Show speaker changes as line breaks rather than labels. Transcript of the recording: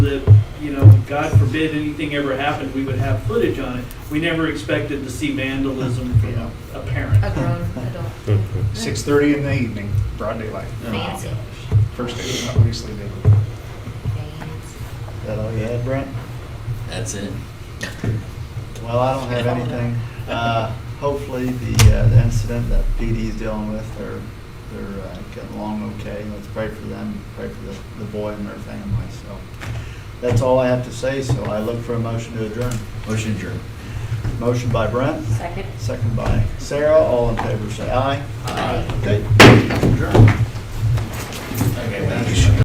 that, you know, God forbid anything ever happened, we would have footage on it. We never expected to see vandalism from a- a parent.
a grown adult.
Six thirty in the evening, broad daylight.
Oh,
Fancy.
First day, obviously, they.
Fancy.
that all you had, Brent?
That's it.
Well, I don't have anything. Uh, Hopefully, the uh, the incident that PD is dealing with, they're, they're uh, getting along okay. Let's pray for them, pray for the the boy and their family, so. That's all I have to say, so I look for a motion to adjourn.
Motion adjourned.
Motion by Brent,
Second.
second by Sarah. All in favor, say aye.
Aye.
Okay, adjourn.
Okay, well, you should-